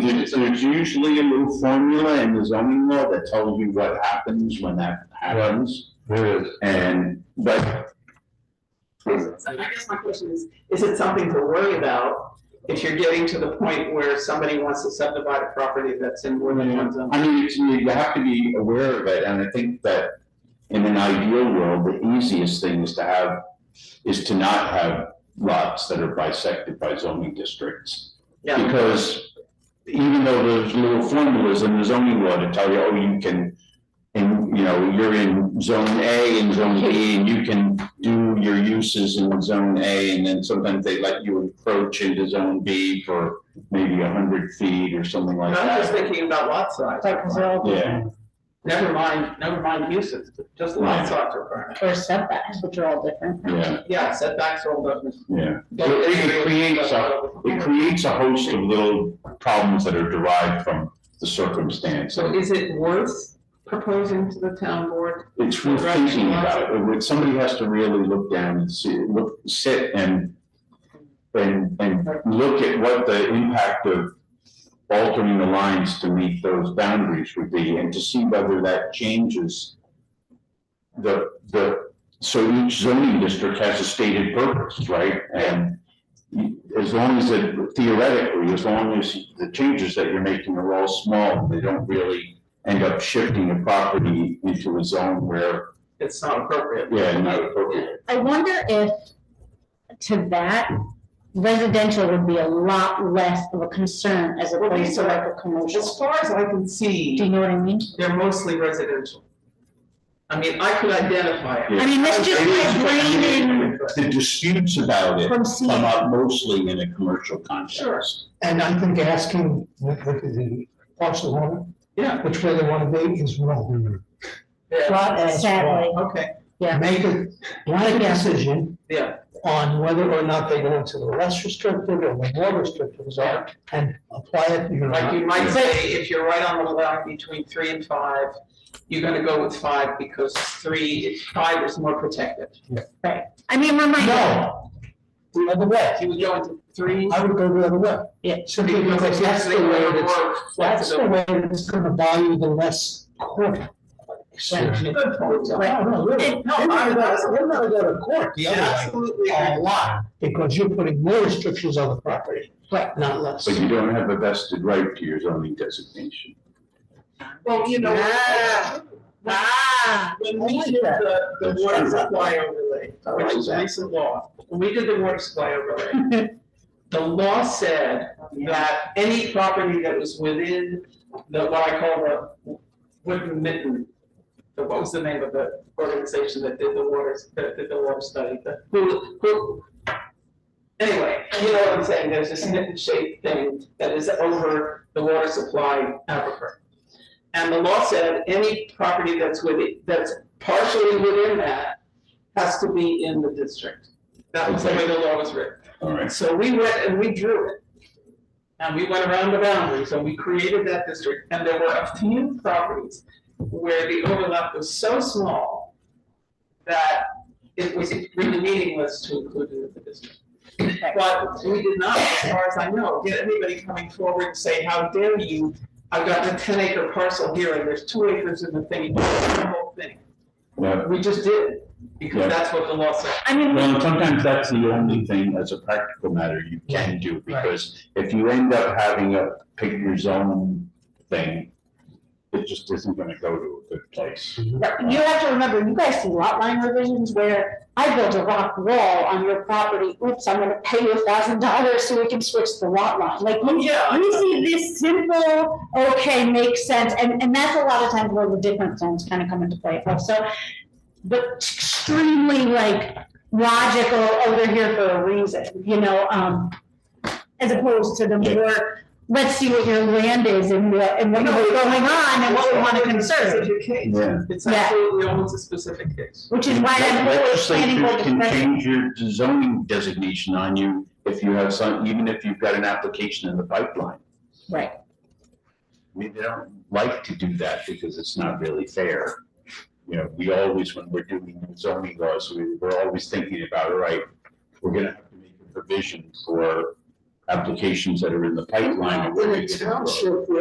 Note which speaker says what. Speaker 1: There's there's usually a new formula in the zoning law that tells you what happens when that happens,
Speaker 2: There is.
Speaker 1: and, but.
Speaker 3: So I guess my question is, is it something to worry about if you're getting to the point where somebody wants to subdivide a property that's in more than one zone?
Speaker 1: I mean, it's, you have to be aware of it, and I think that in an ideal world, the easiest thing is to have, is to not have lots that are bisected by zoning districts.
Speaker 3: Yeah,
Speaker 1: Because even though there's little formulas in the zoning law to tell you, oh, you can, and, you know, you're in zone A and zone B, and you can do your uses in zone A, and then sometimes they let you encroach into zone B for maybe a hundred feet or something
Speaker 3: I
Speaker 1: like
Speaker 3: was
Speaker 1: that.
Speaker 3: just thinking about lot size.
Speaker 4: Like zone
Speaker 1: Yeah.
Speaker 3: uh, Never mind, never mind uses, just lot
Speaker 1: Right.
Speaker 3: size requirement.
Speaker 4: or setbacks, which are all different.
Speaker 1: Yeah,
Speaker 3: Yeah, setbacks all different.
Speaker 1: yeah. So it creates a, it creates a host of little problems that are derived from the circumstance.
Speaker 3: So is it worth proposing to the town board?
Speaker 1: It's worth thinking about. It would- Somebody has to really look down and see, look, sit and, and, and look at what the impact of altering the lines to meet those boundaries would be and to see whether that changes the, the, so each zoning district has a stated purpose, right? And as long as it theoretically, as long as the changes that you're making are all small, they don't really end up shifting a property into a zone where,
Speaker 3: It's not appropriate.
Speaker 1: yeah, not appropriate.
Speaker 4: I wonder if to that residential would be a lot less of a concern as
Speaker 3: Well,
Speaker 4: opposed
Speaker 3: these
Speaker 4: to
Speaker 3: are-
Speaker 4: like a commercial.
Speaker 3: As far as I can
Speaker 4: Do you
Speaker 3: see,
Speaker 4: know what I mean?
Speaker 3: they're mostly residential. I mean, I could identify it.
Speaker 4: I mean, that's just like raining
Speaker 1: The disputes about it
Speaker 4: from seeing.
Speaker 1: come up mostly in a commercial context.
Speaker 5: And I think asking the, the, the parcel owner
Speaker 3: Yeah,
Speaker 5: which way they wanna be is wrong.
Speaker 3: yeah,
Speaker 5: Flat as
Speaker 4: Sadly,
Speaker 3: okay,
Speaker 4: yeah.
Speaker 5: Make a, make a decision
Speaker 3: yeah,
Speaker 5: on whether or not they go into the less restrictive or the more restrictive zone and apply it, you
Speaker 3: like
Speaker 5: know.
Speaker 3: you might say, if you're right on the line between three and five, you're gonna go with five because three, five is more protected.
Speaker 4: I mean, my mind.
Speaker 5: No, the other way.
Speaker 3: If you would go into three,
Speaker 5: I would go the other way.
Speaker 4: Yeah.
Speaker 5: Simply
Speaker 3: because
Speaker 5: because that's the way that's,
Speaker 3: more
Speaker 5: that's the
Speaker 3: flexible.
Speaker 5: way that's gonna value the less court. exception.
Speaker 3: Good point, John.
Speaker 5: No, no, really.
Speaker 3: No,
Speaker 5: They're
Speaker 3: I-
Speaker 5: not gonna- they're not gonna go to court the
Speaker 3: Yeah,
Speaker 5: other way. uh,
Speaker 3: Absolutely.
Speaker 5: a
Speaker 3: agree.
Speaker 5: lot, because you're putting more restrictions on the property,
Speaker 4: Right.
Speaker 5: not less.
Speaker 1: But you don't have a vested right to your zoning designation.
Speaker 3: Well, you know.
Speaker 4: Yeah. Ah.
Speaker 3: When we did the, the water supply overlay, which is recent law, when we did the water supply overlay, the law said that any property that was within the, what I call the wooden mitten, the, what was the name of the organization that did the waters, that did the water study, the, who, who? Anyway, you know what I'm saying, there's this mitten shaped thing that is over the water supply aquifer. And the law said any property that's within, that's partially within that has to be in the district. That was the way the law was written.
Speaker 1: All right.
Speaker 3: So we went and we drew it. And we went around the boundaries and we created that district. And there were a few properties where the overlap was so small that it was really meaningless to include it in the district. But we did not, as far as I know, get anybody coming forward and say, how dare you? I've got a ten acre parcel here and there's two acres in the thing, the whole thing.
Speaker 1: Yeah.
Speaker 3: We just did, it
Speaker 1: Yeah.
Speaker 3: because that's what the law said.
Speaker 4: I mean,
Speaker 1: Well, and sometimes that's the only thing as a practical matter you can do, because if you end up having a pick your zone thing, it just isn't gonna go to a good place.
Speaker 4: you have to remember, you guys see lot line revisions where I built a rock wall on your property. Oops, I'm gonna pay you a thousand dollars so we can switch the lot line. Like, you
Speaker 3: Oh, Yeah.
Speaker 4: We see this simple, okay, makes sense, and, and that's a lot of times where the different zones kind of come into play also. But extremely like logical, oh, they're here for a reason, you know, um, as opposed to the more, let's see what your land is and what, and what's going on and what we want to conserve.
Speaker 3: Specific case.
Speaker 1: Yeah.
Speaker 3: It's
Speaker 4: Yeah.
Speaker 3: absolutely almost a specific case.
Speaker 4: Which is why I'm always planning for
Speaker 1: Legislatures can
Speaker 4: the.
Speaker 1: change your zoning designation on you if you have some, even if you've got an application in the pipeline.
Speaker 4: Right.
Speaker 1: I mean, they don't like to do that because it's not really fair. You know, we always, when we're doing zoning laws, we, we're always thinking about, all right, we're gonna have to make a provision for applications that are in the pipeline. or where
Speaker 3: In
Speaker 1: we
Speaker 3: a
Speaker 1: get
Speaker 3: township where